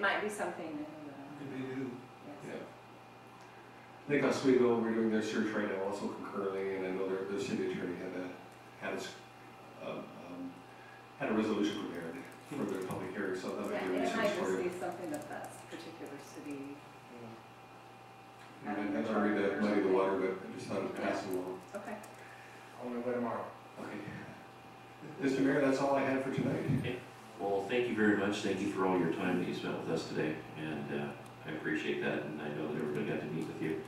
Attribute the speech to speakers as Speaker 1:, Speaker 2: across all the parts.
Speaker 1: might be something new,
Speaker 2: Could be new.
Speaker 1: uh, yes.
Speaker 3: Yeah. I think Oswego, we're doing their search right now also concurrently, and I know their, the city attorney had a, had a, s- um, um, had a resolution prepared for their public hearing, so that
Speaker 1: Yeah,
Speaker 3: might be
Speaker 1: it
Speaker 3: research
Speaker 1: might
Speaker 3: for
Speaker 1: just
Speaker 3: you.
Speaker 1: be something that that's particular city.
Speaker 3: And then, I don't read that, muddy the water, but I just thought it passed along.
Speaker 1: Okay.
Speaker 4: Only way tomorrow.
Speaker 3: Okay. Mr. Mayor, that's all I had for tonight.
Speaker 5: Well, thank you very much. Thank you for all your time that you spent with us today, and uh, I appreciate that, and I know that everybody got to meet with you,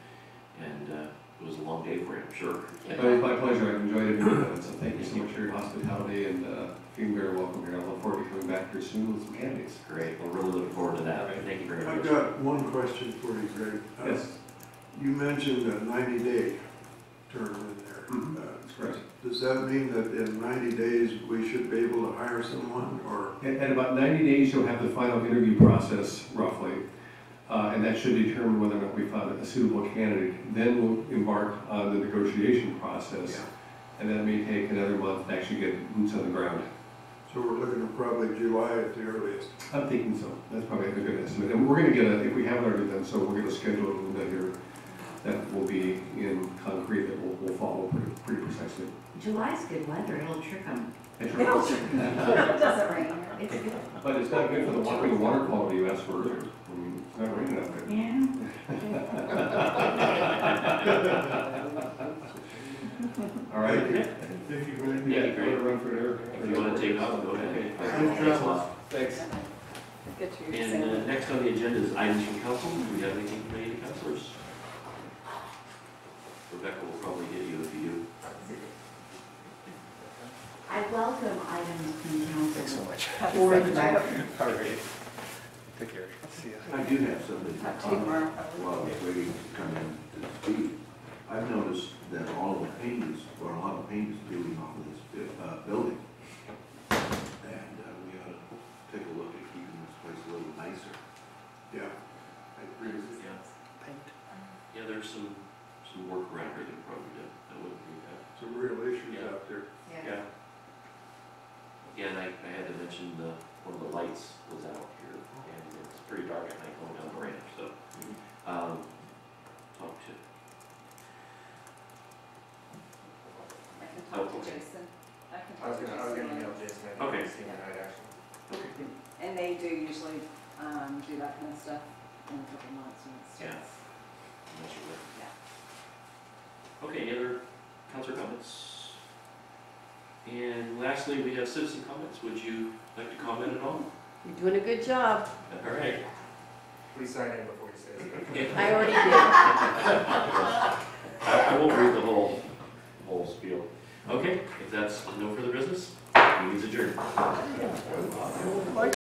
Speaker 5: and uh, it was a long day for you, I'm sure.
Speaker 3: It was my pleasure, I've enjoyed it, and so thank you so much for your hospitality, and, uh, you're very welcome here, I look forward to coming back here soon with some candidates.
Speaker 5: Great, we're really looking forward to that. Thank you very
Speaker 2: I've
Speaker 5: much.
Speaker 2: got one question for you, Greg. Uh,
Speaker 3: Yes,
Speaker 2: You mentioned a ninety day term in
Speaker 3: Mhm.
Speaker 2: there.
Speaker 3: that's
Speaker 2: Uh,
Speaker 3: correct.
Speaker 2: Does that mean that in ninety days, we should be able to hire someone or?
Speaker 3: At, at about ninety days, you'll have the final interview process roughly, uh, and that should determine whether or not we found a suitable candidate. Then we'll embark on the negotiation process, and that may take another month to actually get boots on the ground.
Speaker 2: So we're looking at probably July at the earliest.
Speaker 3: I'm thinking so, that's probably a good estimate, and we're gonna get a, if we haven't already done so, we're gonna schedule a little bit here that will be in concrete, that will, will follow pretty, pretty precisely.
Speaker 6: July's good weather, it'll trick them.
Speaker 1: It doesn't rain here.
Speaker 6: It's good.
Speaker 3: But it's not good for the water, the water quality you asked for earlier, I mean, it's not raining out there.
Speaker 6: Yeah.
Speaker 3: All right.
Speaker 2: Thank you, Greg.
Speaker 5: Yeah,
Speaker 3: if you wanna run for air.
Speaker 5: If you want to take off, go ahead.
Speaker 3: Okay.
Speaker 2: Safe travels.
Speaker 3: Thanks.
Speaker 1: Good to hear you
Speaker 5: And
Speaker 1: say
Speaker 5: uh, next on the agenda is items from council. Do we have anything from any of the councilors? Rebecca will probably hit you if you do.
Speaker 6: I welcome items from council.
Speaker 4: much.
Speaker 1: that.
Speaker 6: Or the back.
Speaker 4: All right. Take care. See ya.
Speaker 5: I do have something
Speaker 1: Talk to you tomorrow, probably.
Speaker 5: while I was waiting to come in to speak, I've noticed that all the paint is, or a lot of paint is peeling off of this bu- uh, building. And uh, we ought to take a look at keeping this place a little nicer.
Speaker 2: Yeah.
Speaker 5: Yeah. Yeah, there's some, some work around here that probably did, that wouldn't be bad.
Speaker 2: Some real issues
Speaker 5: Yeah.
Speaker 2: out there.
Speaker 5: Yeah. Yeah, and I, I had to mention the, one of the lights was out here, and it's pretty dark at night going down the ramp, so, um, talk to,
Speaker 1: I can talk to Jason. I can
Speaker 4: I was
Speaker 1: talk to
Speaker 4: gonna, I was gonna
Speaker 1: Jason.
Speaker 4: email Jason. I
Speaker 5: Okay.
Speaker 4: didn't see him tonight, actually.
Speaker 1: And they do usually, um, do that kind of stuff in a couple months and it's
Speaker 5: Yeah.
Speaker 1: just.
Speaker 5: I'm not sure.
Speaker 1: Yeah.
Speaker 5: Okay, any other council comments? And lastly, we have citizen comments. Would you like to comment at all?
Speaker 7: You're doing a good job.
Speaker 5: All right.
Speaker 4: Please sign in before you say it.
Speaker 7: I already did.
Speaker 5: I, I won't read the whole, whole spiel. Okay, if that's no further business, meeting's adjourned.